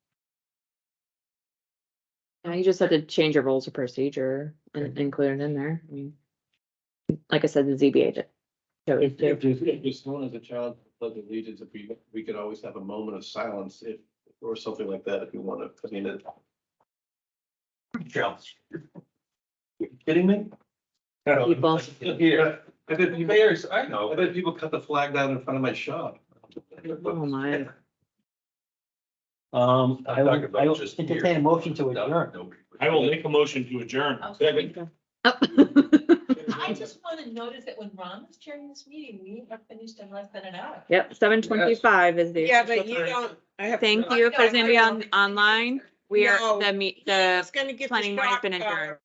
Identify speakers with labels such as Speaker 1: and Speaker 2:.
Speaker 1: Yeah, you just have to change your rules of procedure and include it in there. I mean, like I said, the ZBA did. chose
Speaker 2: If,
Speaker 1: to.
Speaker 2: if, there's- if there's someone as a child pledge allegiance, if we, we could always have a moment of silence if, or something like that, if you want to, I mean, it. Charles. You kidding me?
Speaker 1: People.
Speaker 2: Yeah, I bet, you may,
Speaker 3: Mayors, I
Speaker 2: I
Speaker 3: know.
Speaker 2: bet people cut the flag down in front of my shop.
Speaker 1: Oh, my.
Speaker 4: Um, I
Speaker 3: I'm talking
Speaker 4: will, I
Speaker 3: about
Speaker 4: will
Speaker 3: just
Speaker 4: entertain a
Speaker 3: here.
Speaker 4: motion to adjourn.
Speaker 5: I will make a motion to adjourn.
Speaker 6: Okay.
Speaker 1: Oh.
Speaker 6: I just want to notice that when Ron was chairing this meeting, we have finished in less than an hour.
Speaker 1: Yep, seven twenty-five is the.
Speaker 7: Yeah, but
Speaker 1: official
Speaker 7: you
Speaker 1: time.
Speaker 7: don't, I have.
Speaker 1: Thank you. If there's anybody on, online, we are,
Speaker 7: No.
Speaker 1: the meet,
Speaker 7: I
Speaker 1: the
Speaker 7: was gonna get the uh,
Speaker 1: planning board has
Speaker 7: shock
Speaker 1: been
Speaker 7: collar.
Speaker 1: adjourned.